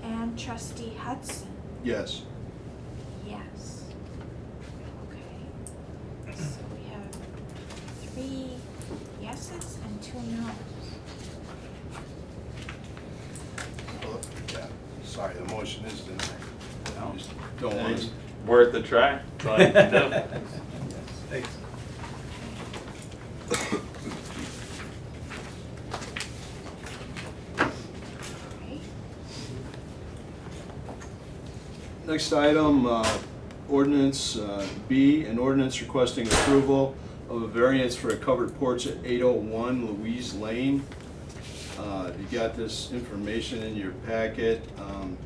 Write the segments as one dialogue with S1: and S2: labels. S1: from trustee Hudson?
S2: Yes.
S1: Yes. Okay. So we have three yeses and two noes.
S2: Well, yeah. Sorry, the motion is denied. I just Don't want
S3: Thanks.
S2: to.
S3: Worth a try. Like, no.
S4: Thanks.
S1: Right?
S2: Next item, uh, ordinance uh, B, an ordinance requesting approval of a variance for a covered porch at 801 Louise Lane. Uh, You got this information in your packet. Um,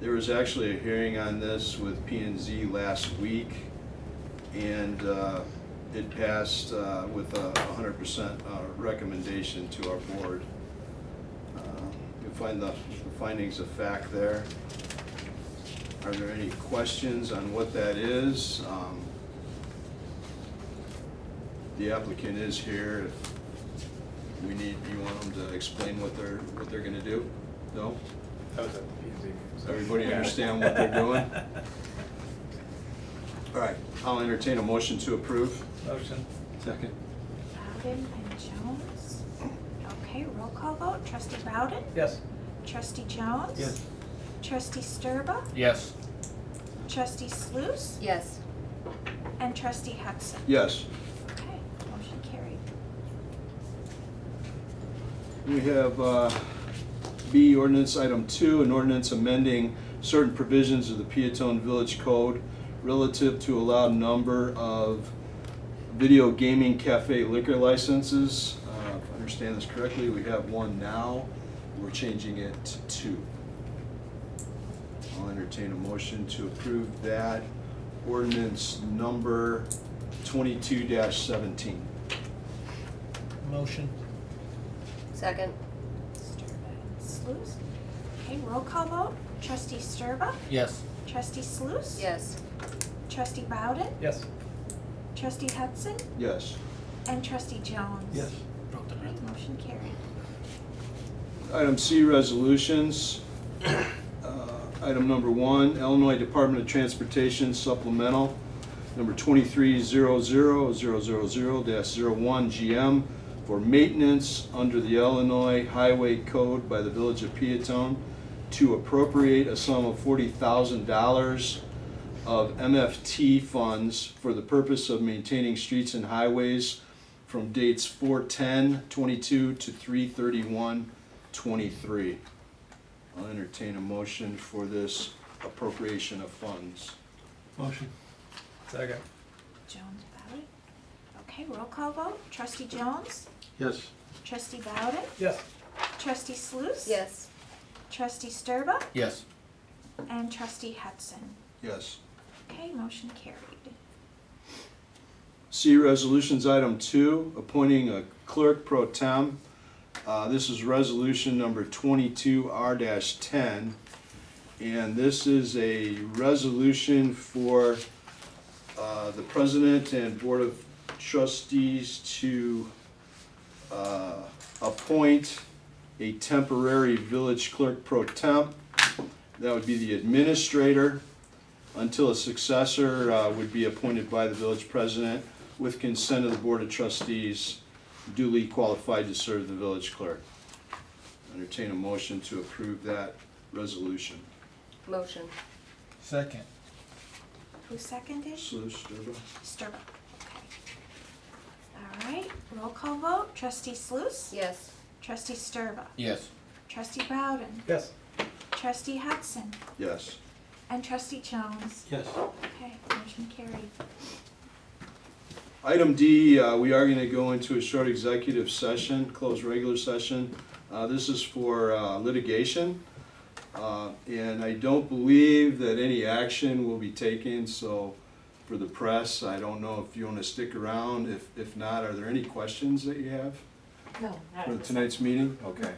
S2: There was actually a hearing on this with P and Z last week, and uh, it passed uh, with a 100% uh, recommendation to our board. Uh, You'll find the the findings of fact there. Are there any questions on what that is? Um, The applicant is here. If We need, you want them to explain what they're, what they're gonna do? No?
S4: That was at the P and Z meeting.
S2: Does
S4: so-
S2: everybody understand what they're doing? All right, I'll entertain a motion to approve.
S4: Motion.
S2: Second.
S1: Bowden and Jones. Okay, roll call vote. Trustee Bowden?
S4: Yes.
S1: Trustee Jones?
S4: Yes.
S1: Trustee Sturba?
S5: Yes.
S1: Trustee Sluse?
S6: Yes.
S1: And trustee Hudson?
S2: Yes.
S1: Okay, motion carried.
S2: We have uh, B, ordinance item two, an ordinance amending certain provisions of the Peatone Village Code relative to allowed number of video gaming cafe liquor licenses. Uh, If I understand this correctly, we have one now, we're changing it to two. I'll entertain a motion to approve that ordinance number twenty-two seventeen.
S4: Motion.
S6: Second?
S1: Sturba and Sluse. Okay, roll call vote. Trustee Sturba?
S5: Yes.
S1: Trustee Sluse?
S6: Yes.
S1: Trustee Bowden?
S4: Yes.
S1: Trustee Hudson?
S2: Yes.
S1: And trustee Jones?
S4: Yes.
S5: Broke the
S1: Okay,
S5: record.
S1: motion carried.
S2: Item C, resolutions. Uh, Item number one, Illinois Department of Transportation supplemental, number 23000000-01GM for maintenance under the Illinois Highway Code by the Village of Peatone to appropriate a sum of $40,000 of MFT funds for the purpose of maintaining streets and highways from dates 4/10/22 to 3/31/23. I'll entertain a motion for this appropriation of funds.
S4: Motion. Second.
S1: Jones, Bowden. Okay, roll call vote. Trustee Jones?
S2: Yes.
S1: Trustee Bowden?
S4: Yes.
S1: Trustee Sluse?
S6: Yes.
S1: Trustee Sturba?
S5: Yes.
S1: And trustee Hudson.
S2: Yes.
S1: Okay, motion carried.
S2: See resolutions item two, appointing a clerk pro tem. Uh, This is resolution number twenty-two R ten. And this is a resolution for uh, the president and board of trustees to uh, appoint a temporary village clerk pro temp. That would be the administrator until a successor uh, would be appointed by the village president with consent of the Board of Trustees duly qualified to serve the village clerk. Entertain a motion to approve that resolution.
S6: Motion.
S5: Second.
S1: Who seconded?
S2: Sluse, Sturba?
S1: Sturba. Okay. All right, roll call vote. Trustee Sluse?
S6: Yes.
S1: Trustee Sturba?
S5: Yes.
S1: Trustee Bowden?
S4: Yes.
S1: Trustee Hudson?
S2: Yes.
S1: And trustee Jones?
S4: Yes.
S1: Okay, motion carried.
S2: Item D, uh, we are going to go into a short executive session, close regular session. Uh, This is for uh, litigation. Uh, And I don't believe that any action will be taken, so for the press, I don't know if you want to stick around. If if not, are there any questions that you have
S6: No,
S2: for tonight's meeting? Okay.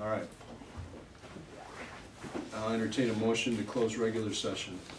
S2: All right. I'll entertain a motion to close regular session.